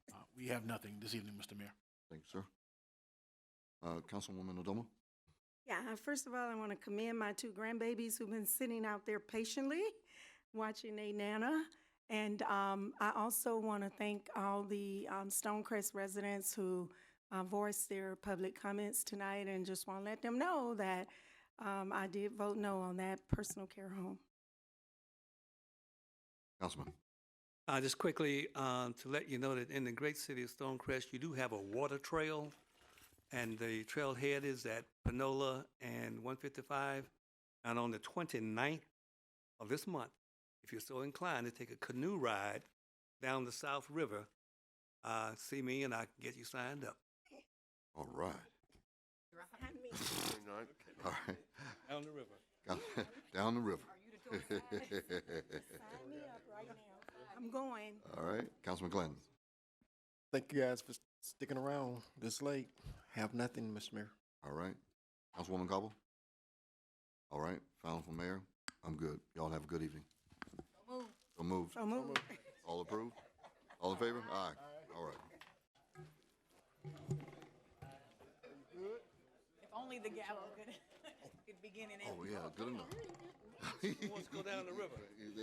Uh, We have nothing this evening, Mr. Mayor. Thank you, sir. Uh, Councilwoman Adoma? Yeah, uh, first of all, I want to commend my two grandbabies who've been sitting out there patiently watching a nana. And um, I also want to thank all the um, Stonecrest residents who uh, voiced their public comments tonight and just want to let them know that um, I did vote no on that personal care home. Councilman? Uh, just quickly, um, to let you know that in the great city of Stonecrest, you do have a water trail. And the trailhead is at Panola and 155. And on the 29th of this month, if you're so inclined to take a canoe ride down the South River, uh, see me and I can get you signed up. All right. All right. Down the river. Down- Down the river. Sign me up right now. I'm going. All right, Councilman Glenn? Thank you guys for sticking around this late. Have nothing, Mr. Mayor. All right. Councilwoman Cobble? All right, final for mayor? I'm good. Y'all have a good evening. So moved. So move. All approved? All in favor? Aye. All right. Only the gavel could, could begin and end. Oh, yeah, good enough. Who wants to go down the river?